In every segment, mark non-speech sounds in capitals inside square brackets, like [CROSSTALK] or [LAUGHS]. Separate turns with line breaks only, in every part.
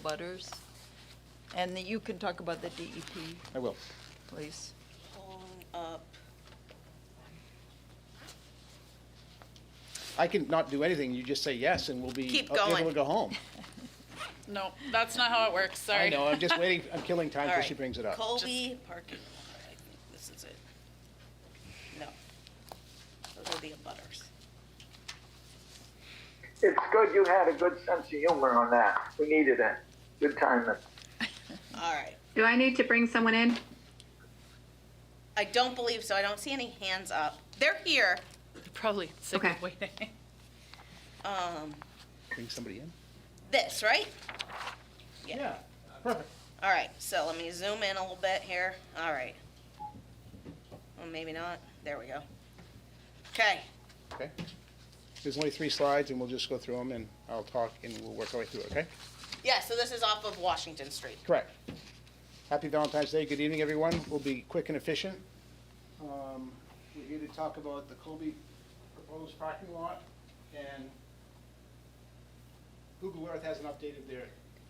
abutters? And that you can talk about the DEP,
I will.
please.
Pulling up,
I can not do anything, you just say yes, and we'll be
Keep
able to
going.
go
[LAUGHS]
home.
No, that's not how it works, sorry.
I know, I'm just waiting, I'm killing time
all
till she
right.
brings it up.
Colby parking lot, I think this is it. No. Those are the abutters.
It's good you had a good sense of humor on that. We needed it. Good timing.
All right.
Do I need to bring someone in?
I don't believe so. I don't see any hands up. They're here.
Probably sick
[LAUGHS]
of
Okay.
waiting.
Um,
Bring somebody in?
this, right? Yeah.
Yeah, perfect.
All right, so let me zoom in a little bit here. All right. Well, maybe not. There we go. Okay,
Okay. There's only three slides, and we'll just go through them, and I'll talk, and we'll work our way through it, okay?
yeah, so this is off of Washington Street.
Correct. Happy Valentine's Day. Good evening, everyone. We'll be quick and efficient. Um, We're here to talk about the Colby proposed parking lot, and Google Earth hasn't updated their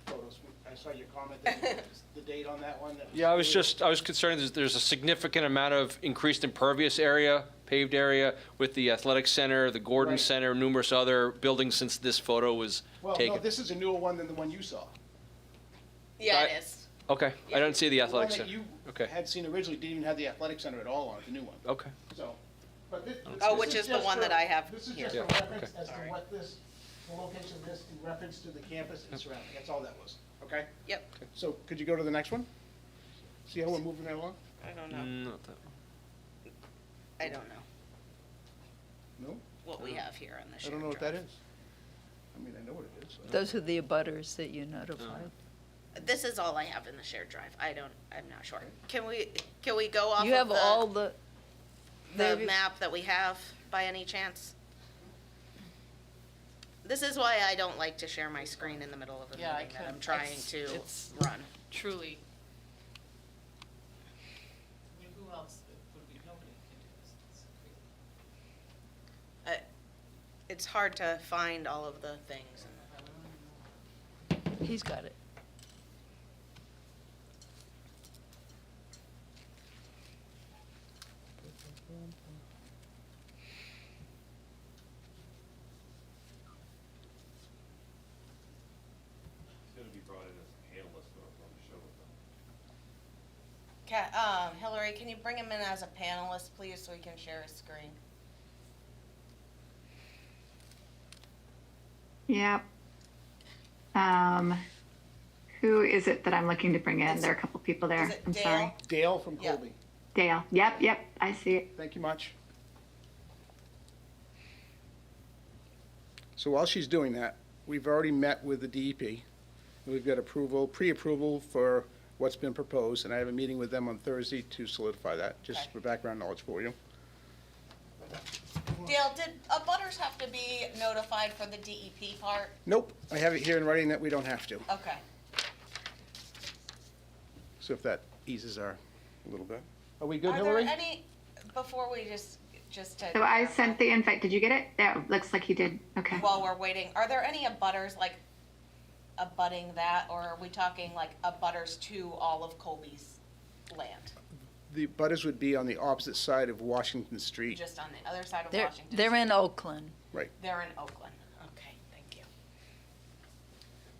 photos. I saw your comment, that- the date on that one. that
Yeah, I was just, I was concerned that there's a significant amount of increased impervious area, paved area, with the athletic center, the Gordon
Right.
Center, numerous other buildings since this photo was
Well, no,
taken.
this is a newer one than the one you saw.
Yeah,
Right.
it is.
Okay, I don't see the
The one
athletic
that
center.
you
Okay.
had seen originally didn't even have the athletic center at all on it, the new one.
Okay,
So, but thi- this.
Oh,
this
which is the
just
one
for-
that I have
This is
here.
just a
Yeah,
reference
okay.
as to
Alright.
what this, the location of this in reference to the campus and surrounding, that's all that was, okay?
Yep,
So could you go to the next one? See how we're moving that along?
I don't know.
Mm, not that one.
I don't know
No,
what we have here on the
I
shared
don't know what that
drive.
is. I mean, I know what it is. I don't-
Those are the abutters that you notified.
This is all I have in the shared drive. I don't, I'm not sure. Can we, can we go off
You have all
of
the,
the, the
maybe-
map that we have by any chance? This is why I don't like to share my screen in the middle of a
Yeah, I
meeting that I'm
couldn't-
trying
it's-
to
it's-
run.
Truly.
Who else would be, nobody can do this, it's crazy.
It's hard to find all of the things.
he's got it.
Ca- um, Hillary, can you bring him in as a panelist, please, so we can share his screen?
Yep. Um, who is it that I'm looking to bring in? There are a couple people there.
Is it
I'm
Dale?
sorry.
Dale from
Yeah.
Colby,
Dale. Yep, yep. I see it.
thank you much. So while she's doing that, we've already met with the DEP. and We've got approval, pre-approval for what's been proposed, and I have a meeting with them on Thursday to solidify that, just
Okay.
for background knowledge for you.
Dale, did abutters have to be notified for the DEP part?
Nope, I have it here in writing that we don't have to,
Okay.
so if that eases our, a little bit. Are we good,
Are there
Hillary?
any, before we just, just to.
So I sent the invite. Did you get it? That looks like you did.
[LAUGHS]
Okay.
While we're waiting, are there any abutters like abutting that, or are we talking like abutters to all of Colby's land?
The butters would be on the opposite side of Washington Street.
Just on the other side of
They're,
Washington?
they're in Oakland. [LAUGHS]
They're in Oakland. Okay, thank you.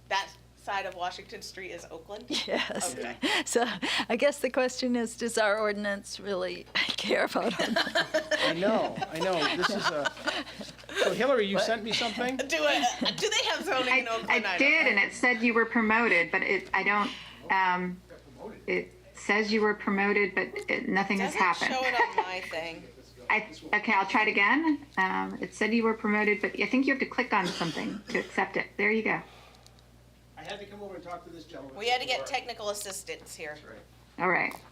That side of Washington Street is Oakland? [LAUGHS]
Yes.
Okay.
So I guess the question is, does our ordinance really [LAUGHS] care
[LAUGHS]
about them?
I know, I know, this is a, so Hillary, you sent me something?
Do it, do they have zoning
I,
in Oakland?
I
don't
did,
know.
and it said you were promoted, but it, I don't, um, it says you were promoted, but it, nothing has
Doesn't
happened.
show it on my thing.
I, okay, I'll try it again. Um, it said you were promoted, but I think you have to click on something to accept it. There you go.
I had to come over and talk to this gentleman.
We had to get technical assistance here.
All right.
Uh,